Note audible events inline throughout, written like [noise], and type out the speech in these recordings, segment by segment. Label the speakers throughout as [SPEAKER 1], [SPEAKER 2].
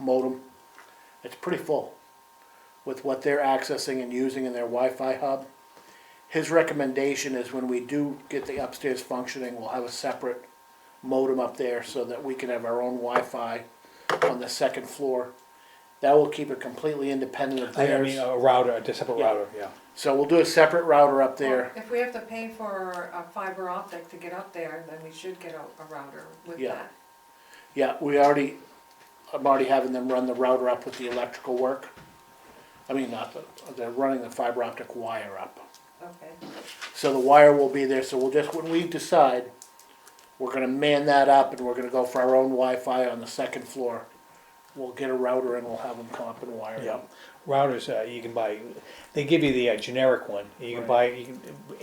[SPEAKER 1] modem. It's pretty full with what they're accessing and using in their Wi-Fi hub. His recommendation is when we do get the upstairs functioning, we'll have a separate modem up there so that we can have our own Wi-Fi on the second floor. That will keep it completely independent of
[SPEAKER 2] I I mean, uh,
[SPEAKER 1] theirs.
[SPEAKER 2] a router, a separate
[SPEAKER 1] Yeah.
[SPEAKER 2] router, yeah.
[SPEAKER 1] So we'll do a separate router up there.
[SPEAKER 2] Oh.
[SPEAKER 3] If we have to pay for a fiber optic to get up there, then we should get a, a router with
[SPEAKER 1] Yeah.
[SPEAKER 3] that.
[SPEAKER 1] Yeah, we already, I'm already having them run the router up with the electrical work. I mean, not the, they're running the fiber optic wire up.
[SPEAKER 3] Okay,
[SPEAKER 1] So the wire will be there, so we'll just, when we decide, we're gonna man that up and we're gonna go for our own Wi-Fi on the second floor. We'll get a router and we'll have them come up and wire it
[SPEAKER 2] Yeah,
[SPEAKER 1] up.
[SPEAKER 2] routers, uh, you can buy, they give you the uh, generic one, you can buy, you can,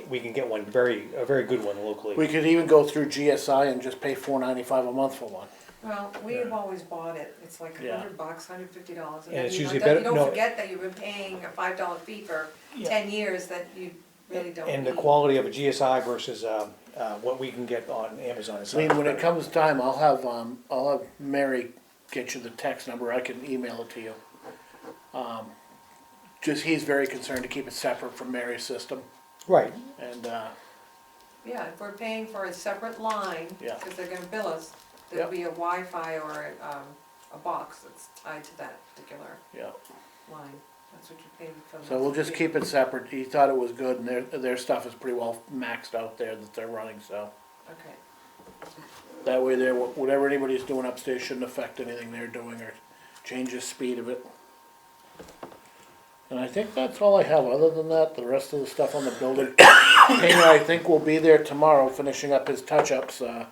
[SPEAKER 2] we can get one very, a very good one
[SPEAKER 1] We
[SPEAKER 2] locally.
[SPEAKER 1] could even go through GSI and just pay four ninety-five a month for one.
[SPEAKER 3] well, we've always bought it, it's like a
[SPEAKER 1] Yeah.
[SPEAKER 3] hundred bucks, hundred fifty dollars.
[SPEAKER 2] And it's
[SPEAKER 3] you don't-
[SPEAKER 2] usually better-
[SPEAKER 3] You don't
[SPEAKER 2] no.
[SPEAKER 3] forget that you've been paying a five dollar fee for
[SPEAKER 2] Yeah.
[SPEAKER 3] ten years that you really don't need.
[SPEAKER 2] And the quality of a GSI versus, um, uh, what we can get on Amazon is.
[SPEAKER 1] I mean, when it comes time, I'll have, um, I'll have Mary get you the text number, I can email it to you. Um, Just, he's very concerned to keep it separate from Mary's system,
[SPEAKER 2] Right,
[SPEAKER 1] and, uh,
[SPEAKER 3] Yeah, if we're paying for a separate line,
[SPEAKER 1] Yeah.
[SPEAKER 3] because they're gonna bill us,
[SPEAKER 1] Yep.
[SPEAKER 3] there'd be a Wi-Fi or a, um, a box that's tied to that particular
[SPEAKER 1] yeah.
[SPEAKER 3] line. That's what you're paying for.
[SPEAKER 1] So we'll just keep it separate, he thought it was good, and their, their stuff is pretty well maxed out there that they're running, so.
[SPEAKER 3] Okay,
[SPEAKER 1] That way there, whatever anybody's doing upstairs shouldn't affect anything they're doing or change the speed of it. And I think that's all I have, other than that, the rest of the stuff on the building. Hanger, I think will be there tomorrow finishing up his touch-ups, uh,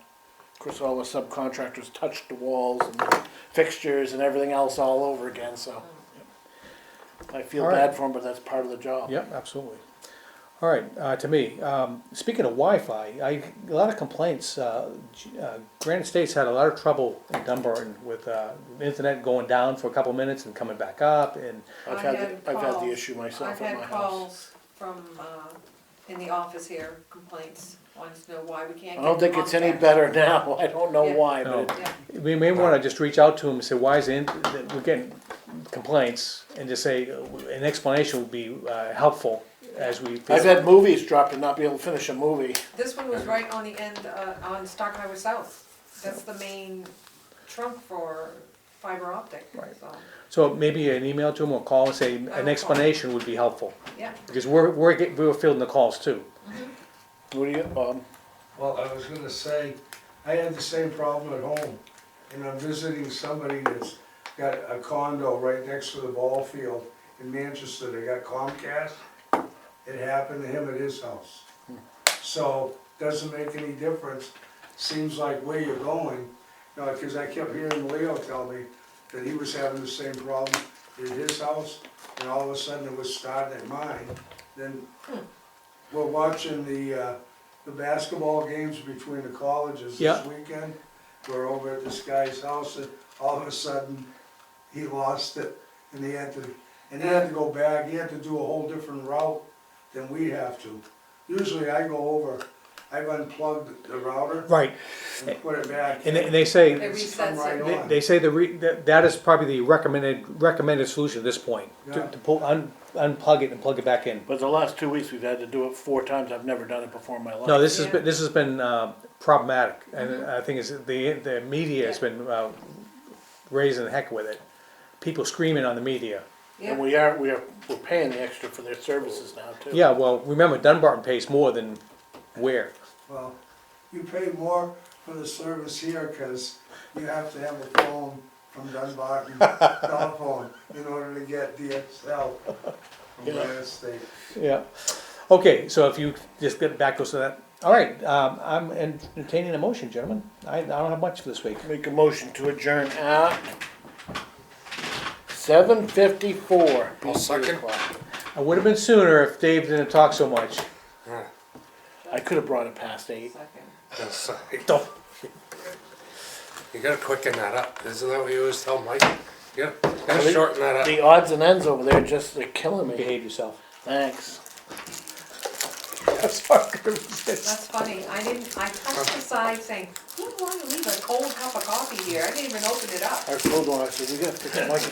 [SPEAKER 1] of course, all the subcontractors touched the walls and fixtures and everything else all over again, so. I feel
[SPEAKER 2] All right.
[SPEAKER 1] bad for him, but that's part of the job.
[SPEAKER 2] yep, absolutely. All right, uh, to me, um, speaking of Wi-Fi, I, a lot of complaints, uh, G- uh, Granite State's had a lot of trouble in Dunbar with, uh, internet going down for a couple minutes and coming back up and,
[SPEAKER 1] I've
[SPEAKER 3] I
[SPEAKER 1] had,
[SPEAKER 3] had
[SPEAKER 1] the- I've had the
[SPEAKER 3] calls.
[SPEAKER 1] issue
[SPEAKER 3] I've
[SPEAKER 1] myself at my house.
[SPEAKER 3] had calls from, uh, in the office here, complaints, wants to know why we can't.
[SPEAKER 1] I don't
[SPEAKER 3] get
[SPEAKER 1] think it's any
[SPEAKER 3] contact.
[SPEAKER 1] better now, [laughs] I don't know
[SPEAKER 3] Yeah.
[SPEAKER 1] why, but
[SPEAKER 2] No.
[SPEAKER 1] it
[SPEAKER 3] Yeah,
[SPEAKER 2] We may wanna just reach out to them and say, why is it, that we're getting complaints, and just say, uh, an explanation would be uh, helpful as we.
[SPEAKER 1] I've had movies dropped and not be able to finish a movie.
[SPEAKER 3] this one was right on the end, uh, on Stock Highway South. That's the main trunk for fiber optic,
[SPEAKER 2] Right.
[SPEAKER 3] so,
[SPEAKER 2] So maybe an email to them or call and say,
[SPEAKER 3] call.
[SPEAKER 2] an explanation would be helpful,
[SPEAKER 3] yeah.
[SPEAKER 2] because we're, we're getting, we're fielding the calls too.
[SPEAKER 1] What do you, um,
[SPEAKER 4] Well, I was gonna say, I had the same problem at home, and I'm visiting somebody that's got a condo right next to the ball field in Manchester, they got Comcast. It happened to him at his house. So, doesn't make any difference, seems like where you're going, you know, cause I kept hearing Leo tell me that he was having the same problem at his house, and all of a sudden it was starting at mine, then we're watching the, uh, the basketball games between the colleges
[SPEAKER 2] Yeah.
[SPEAKER 4] this weekend. We're over at this guy's house and all of a sudden, he lost it and he had to, and he had to go back, he had to do a whole different route than we have to. Usually I go over, I've unplugged the router
[SPEAKER 2] Right,
[SPEAKER 4] and put it back.
[SPEAKER 2] and they, and they say,
[SPEAKER 3] They
[SPEAKER 4] It's come
[SPEAKER 3] resets
[SPEAKER 4] right
[SPEAKER 3] it.
[SPEAKER 4] on.
[SPEAKER 2] they- they say the re, that, that is probably the recommended, recommended solution at this point, to,
[SPEAKER 4] Yeah.
[SPEAKER 2] to pull, un, unplug it and plug it back in.
[SPEAKER 1] but the last two weeks, we've had to do it four times, I've never done it before in my life.
[SPEAKER 2] No, this has
[SPEAKER 3] Yeah.
[SPEAKER 2] been, this has been uh, problematic, and I think it's, the, the media has
[SPEAKER 3] Yeah.
[SPEAKER 2] been uh, raising the heck with it. People screaming on the media.
[SPEAKER 3] Yeah.
[SPEAKER 1] And we are, we are, we're paying the extra for their services now too.
[SPEAKER 2] Yeah, well, remember Dunbarton pays more than Ware.
[SPEAKER 4] Well, you pay more for the service here because you have to have a phone from Dunbarton telephone in order to get DSL from
[SPEAKER 1] Yeah.
[SPEAKER 4] Granite State.
[SPEAKER 2] Yeah. Okay, so if you just get back to us to that. All right, um, I'm entertaining a motion, gentlemen. I, I don't have much for this week.
[SPEAKER 1] Make a motion to adjourn at seven fifty-four.
[SPEAKER 5] I'll second.
[SPEAKER 2] I would have been sooner if Dave didn't talk so much.
[SPEAKER 1] I could have brought it past eight.
[SPEAKER 3] Second.
[SPEAKER 5] That's like-
[SPEAKER 2] Don't-
[SPEAKER 5] You gotta quicken that up, isn't that what you always tell Mike? You gotta- you gotta shorten that up.
[SPEAKER 1] The odds and ends over there just, they're killing me.
[SPEAKER 2] Behave yourself. [laughs]
[SPEAKER 1] Thanks.
[SPEAKER 2] I'm sorry, I couldn't resist.
[SPEAKER 3] That's funny, I didn't, I touched the side saying, didn't want to leave a cold cup of coffee here, I didn't even open it up.
[SPEAKER 1] Our code one, I said, we gotta fix Mike's